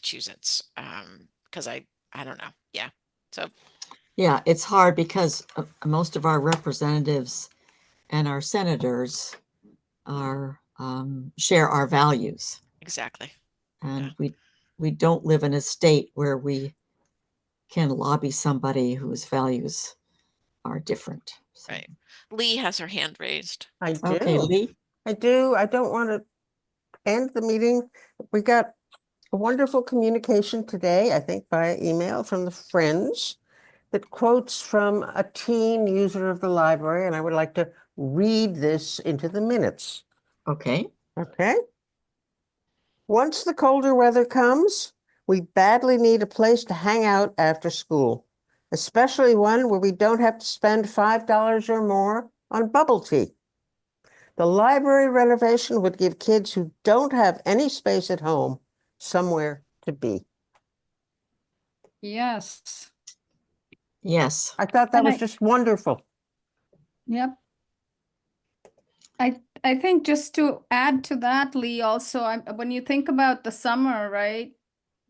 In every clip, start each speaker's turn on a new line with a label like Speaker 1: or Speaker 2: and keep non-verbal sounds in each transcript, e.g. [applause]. Speaker 1: Massachusetts. Um, because I, I don't know. Yeah.
Speaker 2: Yeah, it's hard because uh, most of our representatives and our senators are, um, share our values.
Speaker 1: Exactly.
Speaker 2: And we, we don't live in a state where we can lobby somebody whose values are different. so.
Speaker 1: Right. Lee has her hand raised.
Speaker 3: I
Speaker 2: Okay,
Speaker 3: do,
Speaker 2: Lee,
Speaker 3: I do. I don't want to end the meeting. We got a wonderful communication today, I think by email from the Friends that quotes from a teen user of the library, and I would like to read this into the minutes.
Speaker 2: okay,
Speaker 3: Okay. Once the colder weather comes, we badly need a place to hang out after school, especially one where we don't have to spend $5 or more on bubble tea. The library renovation would give kids who don't have any space at home somewhere to be.
Speaker 4: Yes,
Speaker 2: yes,
Speaker 3: I thought that
Speaker 4: And
Speaker 3: was
Speaker 4: I-
Speaker 3: just wonderful.
Speaker 4: yep. I, I think just to add to that, Lee, also, I, when you think about the summer, right?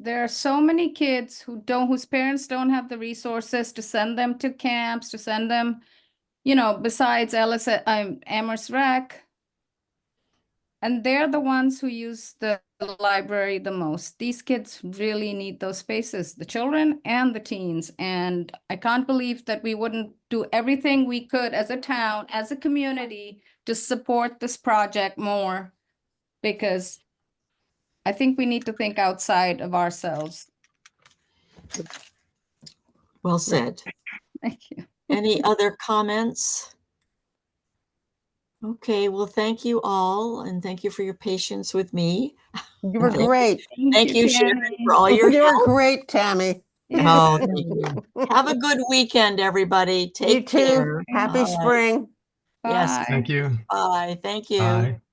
Speaker 4: There are so many kids who don't, whose parents don't have the resources to send them to camps, to send them, you know, besides Ellis, um, Amherst Rec. And they're the ones who use the the library the most. These kids really need those spaces, the children and the teens. And I can't believe that we wouldn't do everything we could as a town, as a community, to support this project more. Because I think we need to think outside of ourselves. [laughs]
Speaker 2: well said.
Speaker 4: Thank you.
Speaker 2: Any other comments? Okay, well, thank you all and thank you for your patience with me.
Speaker 3: You were
Speaker 2: Thank you.
Speaker 3: great.
Speaker 2: Thank you, Sharon,
Speaker 4: Tammy.
Speaker 2: for all your
Speaker 3: You were
Speaker 2: help.
Speaker 3: great, Tammy.
Speaker 4: Yeah.
Speaker 2: Oh, thank you.
Speaker 3: [laughs]
Speaker 2: Have a good weekend, everybody.
Speaker 3: You
Speaker 2: Take
Speaker 3: too.
Speaker 2: care.
Speaker 3: Happy
Speaker 2: All right.
Speaker 3: spring.
Speaker 2: Oh, yes.
Speaker 4: Bye.
Speaker 5: Thank you.
Speaker 2: Bye. Thank you.
Speaker 5: Bye.